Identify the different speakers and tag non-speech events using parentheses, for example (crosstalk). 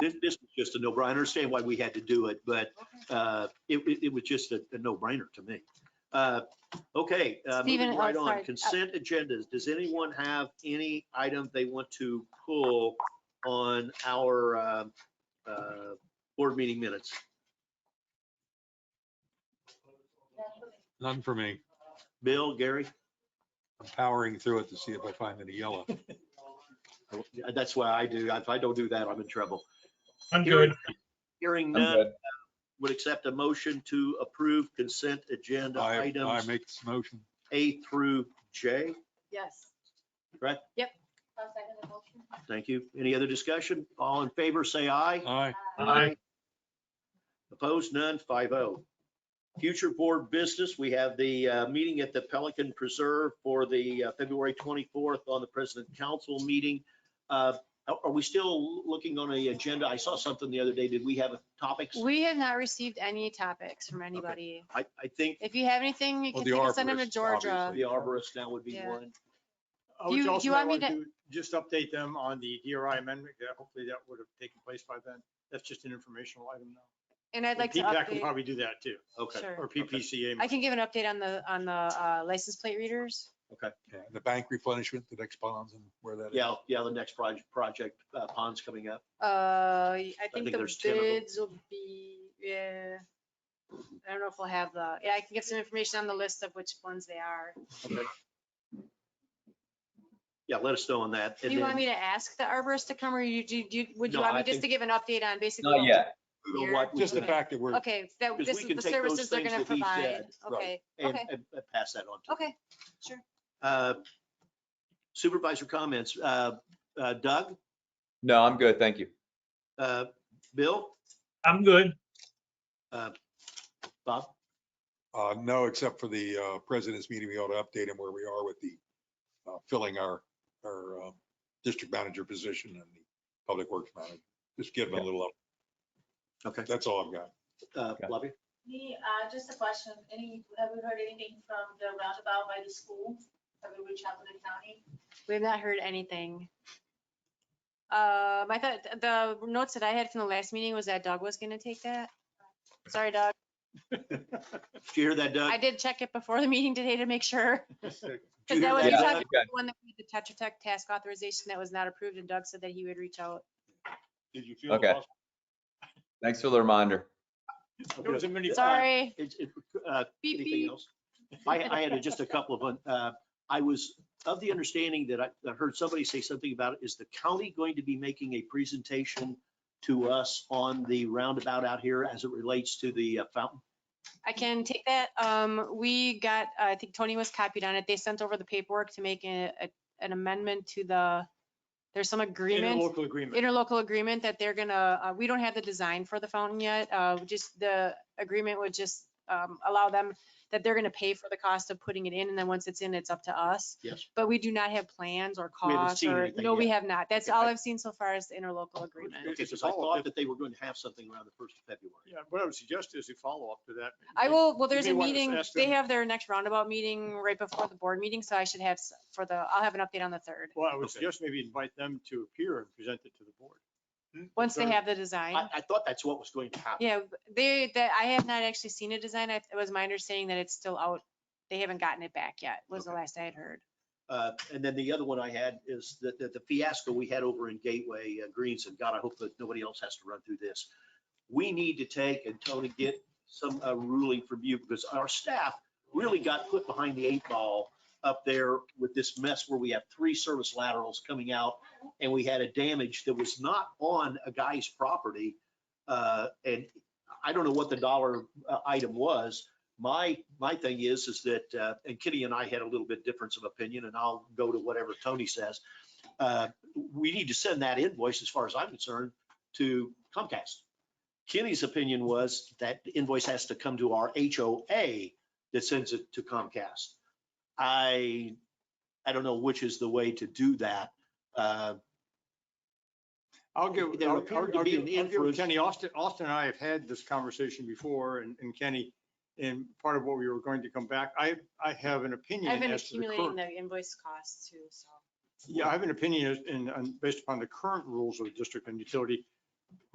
Speaker 1: This, this was just a no-brainer. I understand why we had to do it, but uh, it, it- it was just a a no-brainer to me. Uh, Okay, uh,
Speaker 2: Stephen,
Speaker 1: moving
Speaker 2: oh,
Speaker 1: right on,
Speaker 2: sorry.
Speaker 1: consent agendas. Does anyone have any item they want to pull on our um, uh, board meeting minutes?
Speaker 3: None for me.
Speaker 1: Bill, Gary?
Speaker 3: I'm powering through it to see if I find any yellow.
Speaker 1: That's why I do. If I don't do that, I'm in trouble.
Speaker 4: I'm
Speaker 1: Hearing-
Speaker 4: good.
Speaker 1: Hearing
Speaker 5: I'm
Speaker 1: none, uh,
Speaker 5: good.
Speaker 1: would accept a motion to approve consent agenda
Speaker 3: I, I
Speaker 1: items
Speaker 3: make this motion.
Speaker 1: A through J.
Speaker 2: Yes.
Speaker 1: Right.
Speaker 2: Yep.
Speaker 1: Thank you. Any other discussion? All in favor, say aye.
Speaker 3: Aye.
Speaker 1: Uh,
Speaker 4: Aye.
Speaker 1: Opposed, none, 5-0. Future board business, we have the uh, meeting at the Pelican Preserve for the uh, February 24th on the President Council meeting. Uh, Are are we still looking on the agenda? I saw something the other day. Did we have topics?
Speaker 2: We have not received any topics from anybody.
Speaker 1: I, I think
Speaker 2: If you have anything, you
Speaker 3: Well,
Speaker 2: can
Speaker 3: the
Speaker 2: you can send them to
Speaker 3: arborist,
Speaker 2: Georgia.
Speaker 1: the arborist now would be
Speaker 2: Yeah.
Speaker 1: one.
Speaker 6: I would
Speaker 2: You-
Speaker 6: also
Speaker 2: you want me
Speaker 6: might want to Just update them on the DRI amendment. Yeah, Hopefully that would have taken place by then. That's just an informational item now.
Speaker 2: And I'd like to
Speaker 6: PPAC can
Speaker 2: update,
Speaker 6: probably do that too,
Speaker 1: Okay.
Speaker 2: sure.
Speaker 6: or PPCA.
Speaker 2: I can give an update on the, on the uh, license plate readers.
Speaker 3: Yeah, The bank replenishment, the next bonds and where that is.
Speaker 1: Yeah, yeah, the next project, project uh, pond's coming up.
Speaker 2: Uh, I
Speaker 1: think
Speaker 2: think the
Speaker 1: there's 10 of them.
Speaker 2: bids will be, yeah. I don't know if we'll have the, yeah, I can get some information on the list of which ones they are.
Speaker 1: Yeah, let us know on that.
Speaker 2: Do
Speaker 1: And
Speaker 2: you want
Speaker 1: then-
Speaker 2: me to ask the arborist to come or you, do, do- would you
Speaker 1: No,
Speaker 2: want
Speaker 1: I
Speaker 2: me just
Speaker 1: think-
Speaker 2: to give an update on basically?
Speaker 5: Not
Speaker 2: what-
Speaker 5: yet.
Speaker 1: you know, what we
Speaker 3: Just the
Speaker 1: did
Speaker 3: fact that we're,
Speaker 2: Okay, that,
Speaker 1: Because
Speaker 2: this
Speaker 1: we
Speaker 2: is
Speaker 1: can
Speaker 2: the
Speaker 1: take those
Speaker 2: services they're
Speaker 1: things
Speaker 2: gonna
Speaker 1: that he
Speaker 2: provide.
Speaker 1: said,
Speaker 2: Okay,
Speaker 1: And,
Speaker 2: okay,
Speaker 1: and and pass that on to.
Speaker 2: okay.
Speaker 1: Uh, Supervisor comments, uh, uh, Doug,
Speaker 5: No, I'm good. Thank you.
Speaker 1: uh, Bill,
Speaker 4: I'm good.
Speaker 1: Bob?
Speaker 3: uh, no, except for the, uh, president's meeting, we ought to update him where we are with the, uh, filling our, our, uh, district manager position and the public works manager. Just give him a little up.
Speaker 1: Okay.
Speaker 3: That's all I've got.
Speaker 1: Uh,
Speaker 5: Okay.
Speaker 1: Bobby?
Speaker 7: Me, uh, just a question, any, have you heard anything from the roundabout by the school? Have you reached out to the county?
Speaker 2: We have not heard anything. Um, I thought th- the notes that I had from the last meeting was that Doug was gonna take that. Sorry, Doug.
Speaker 1: Did you
Speaker 6: (laughs)
Speaker 1: hear that,
Speaker 2: I
Speaker 1: Doug?
Speaker 2: did check it before the meeting today to
Speaker 1: (laughs)
Speaker 2: make sure.
Speaker 1: Did you
Speaker 2: Because that
Speaker 1: hear
Speaker 2: was
Speaker 1: that,
Speaker 2: the
Speaker 1: Doug?
Speaker 2: Tetra-
Speaker 5: Okay.
Speaker 2: one that we did the Tetra Tech task authorization that was not approved and Doug said that he would reach out.
Speaker 6: Did you feel?
Speaker 5: Okay.
Speaker 6: lost?
Speaker 5: Thanks for the reminder.
Speaker 6: There was a mini.
Speaker 2: Sorry.
Speaker 1: It's- it- uh,
Speaker 2: Beep,
Speaker 1: Anything
Speaker 2: beep.
Speaker 1: else? I, I had just a couple of, uh, I was of the understanding that I I heard somebody say something about, is the county going to be making a presentation to us on the roundabout out here as it relates to the uh, fountain?
Speaker 2: I can take that. Um, we got, I think Tony was copied on it. They sent over the paperwork to make a, a- an amendment to the, there's some agreement.
Speaker 6: Local agreement.
Speaker 2: interlocal agreement that they're gonna, uh, we don't have the design for the fountain yet. Uh, we just the agreement would just, um, allow them that they're gonna pay for the cost of putting it in and then once it's in, it's up to us.
Speaker 1: Yes.
Speaker 2: But we do not have plans or
Speaker 1: We haven't
Speaker 2: costs
Speaker 1: seen
Speaker 2: or,
Speaker 1: anything
Speaker 2: no, we
Speaker 1: yet.
Speaker 2: have not. That's
Speaker 1: Okay,
Speaker 2: all
Speaker 1: I-
Speaker 2: I've seen so far is the interlocal agreement.
Speaker 1: Okay, because I thought that they were going to have something around the first of February.
Speaker 6: Yeah, what I would suggest is a follow-up to that.
Speaker 2: I will, well, there's
Speaker 6: may
Speaker 2: a
Speaker 6: wanna
Speaker 2: meeting,
Speaker 6: ask
Speaker 2: they
Speaker 6: them-
Speaker 2: have their next roundabout meeting right before the board meeting, so I should have s- for the, I'll have an update on the third,
Speaker 6: Well, I would
Speaker 1: Okay.
Speaker 6: suggest maybe invite them to appear and present it to the board.
Speaker 2: once they
Speaker 6: Very-
Speaker 2: have the design.
Speaker 1: I, I thought that's what was going to happen.
Speaker 2: Yeah, they, that, I have not actually seen a design. I- It was my understanding that it's still out. They haven't gotten it back yet, was the
Speaker 1: Okay.
Speaker 2: last I had heard.
Speaker 1: Uh, And then the other one I had is that, that the fiasco we had over in Gateway uh, Greens, and God, I hope that nobody else has to run through this. We need to take and Tony get some uh, ruling from you because our staff really got put behind the eight ball up there with this mess where we have three service laterals coming out and we had a damage that was not on a guy's property. Uh, And I don't know what the dollar uh, item was, my, my thing is, is that, uh, and Kitty and I had a little bit difference of opinion, and I'll go to whatever Tony says. Uh, We need to send that invoice, as far as I'm concerned, to Comcast. Kitty's opinion was that invoice has to come to our HOA that sends it to Comcast. I, I don't know which is the way to do that. Uh,
Speaker 6: I'll give,
Speaker 1: There
Speaker 6: I'll, I'll
Speaker 1: appeared to
Speaker 6: I'll
Speaker 1: be
Speaker 6: give
Speaker 1: an
Speaker 6: I'll give
Speaker 1: inference.
Speaker 6: Kenny, Austin, Austin and I have had this conversation before and, and Kenny, and part of what we were going to come back, I, I have an opinion
Speaker 2: I've been
Speaker 6: as to the
Speaker 2: accumulating
Speaker 6: current.
Speaker 2: the invoice costs too, so.
Speaker 6: Yeah, I have an opinion as- in, on- based upon the current rules of the district and utility,